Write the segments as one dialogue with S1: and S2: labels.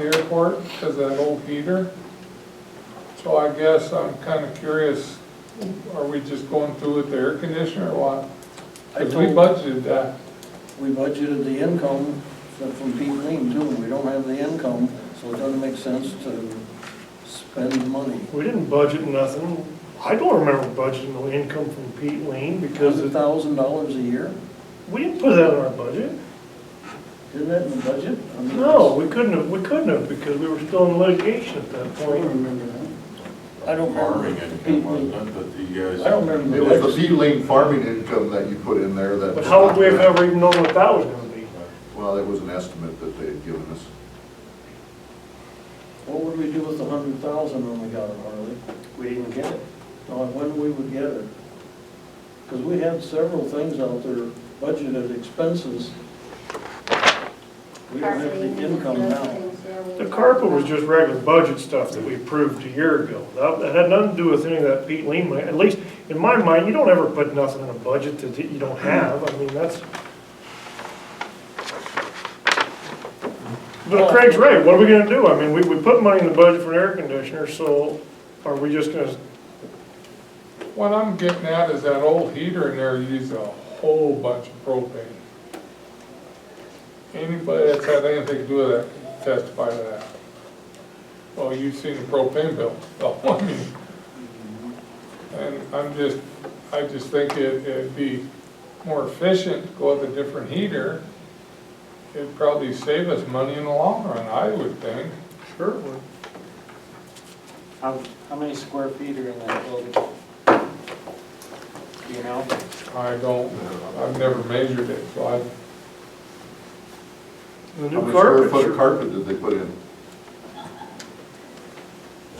S1: airport because of that old heater. So I guess I'm kind of curious, are we just going through with the air conditioner or what?
S2: I
S1: Because we
S2: told-
S1: budgeted that.
S2: We budgeted the income from- from Pete Lean too, we don't have the income, so it doesn't make sense to spend the money.
S3: We didn't budget nothing. I don't remember budgeting the income from Pete Lane because
S2: Hundred
S3: it-
S2: thousand dollars a year,
S3: we didn't put that in our budget.
S2: isn't that in the budget? I mean,
S3: No, we couldn't have, we couldn't have because we were still in litigation at that
S2: I don't
S3: point.
S2: remember that. I don't
S4: Farming
S2: remember.
S4: income,
S2: Pete
S4: wasn't
S2: Lean.
S4: it, that you
S5: uh,
S4: guys?
S2: I don't remember.
S6: It was the P-Lane farming income that you put in there that.
S3: But how would we have ever even known what that was gonna be?
S6: Well, it was an estimate that they had given us.
S2: What would we do with the hundred thousand when we got it, Harley?
S7: We didn't get it.
S2: Now, when we would get it? Because we had several things out there, budgeted expenses. We don't have the income now.
S3: The carpet was just regular budget stuff that we approved a year ago. That that had nothing to do with any of that Pete Lean money. At least, in my mind, you don't ever put nothing in a budget that you don't have. I mean, that's. But Craig's right, what are we gonna do? I mean, we, we put money in the budget for an air conditioner, so are we just gonna,
S1: What I'm getting at is that old heater in there used a whole bunch of propane. Anybody that's had anything to do with it can testify to that. Well, you've seen the propane bill, so, I mean, and I'm just, I just think it- it'd be more efficient to go with a different heater. It'd probably save us money in the long run, I would think.
S3: sure, we're-
S7: How, how many square feet are in that building? Do you know?
S1: I don't, I've never measured it, so I,
S3: the
S6: How
S3: new
S6: much square
S3: carpet,
S6: foot of
S3: sure.
S6: carpet did they put in?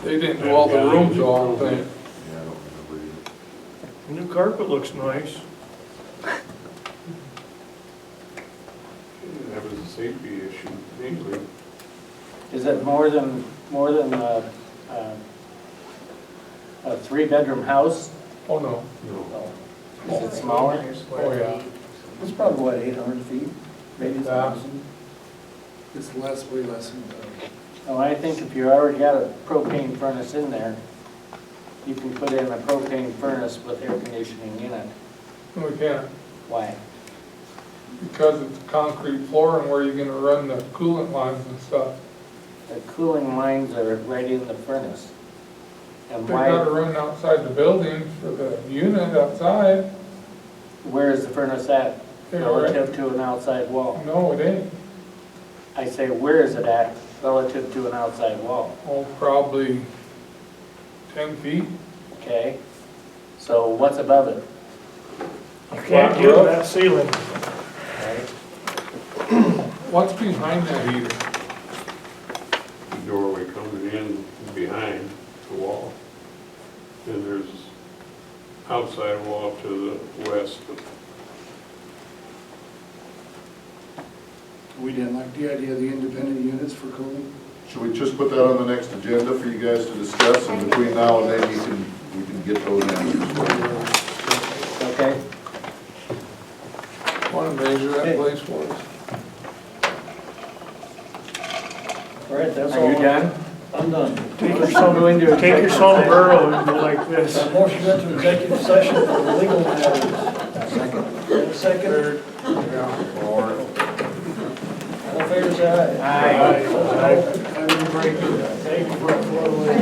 S1: they didn't do all the rooms, so I don't think.
S6: Yeah, I don't remember either.
S3: the new carpet looks nice.
S5: That was a safety issue mainly.
S7: Is it more than, more than a, a, a three-bedroom house?
S1: Oh, no.
S7: Is it smaller?
S1: Oh, yeah.
S2: It's probably what, eight hundred feet, maybe a thousand?
S8: It's less, way less than that.
S7: Well, Oh, I think if you already got a propane furnace in there, you can put in a propane furnace with air conditioning in it.
S1: No, we can't,
S7: Why?
S1: because it's concrete floor and where you're gonna run the coolant lines and stuff.
S7: The cooling lines are right in the furnace.
S1: They
S7: And
S1: gotta
S7: why,
S1: run outside the building for the unit outside.
S7: where is the furnace at
S1: They're right-
S7: relative to an outside wall?
S1: No, it ain't.
S7: I say, where is it at relative to an outside wall,
S1: Oh, probably ten feet.
S7: okay? So what's above it,
S3: You can't get that ceiling.
S7: right?
S1: What's behind that heater?
S5: The doorway coming in behind the wall. And there's outside wall to the west.
S8: We didn't like the idea of the independent units for cooling.
S6: Should we just put that on the next agenda for you guys to discuss, and between now and then, you can, we can get those answers for you.
S7: Okay?
S1: Wanna measure that
S2: Okay.
S1: place for us?
S2: All right, that's all.
S7: Are you done?
S2: I'm done.
S3: Take your sun, take your sombrero and go like this.
S2: A Motion to enter executive session for legal matters. Second. Second. All in favor, say aye.
S7: Aye.
S8: I'm breaking.
S2: Thank you, Brett, for the-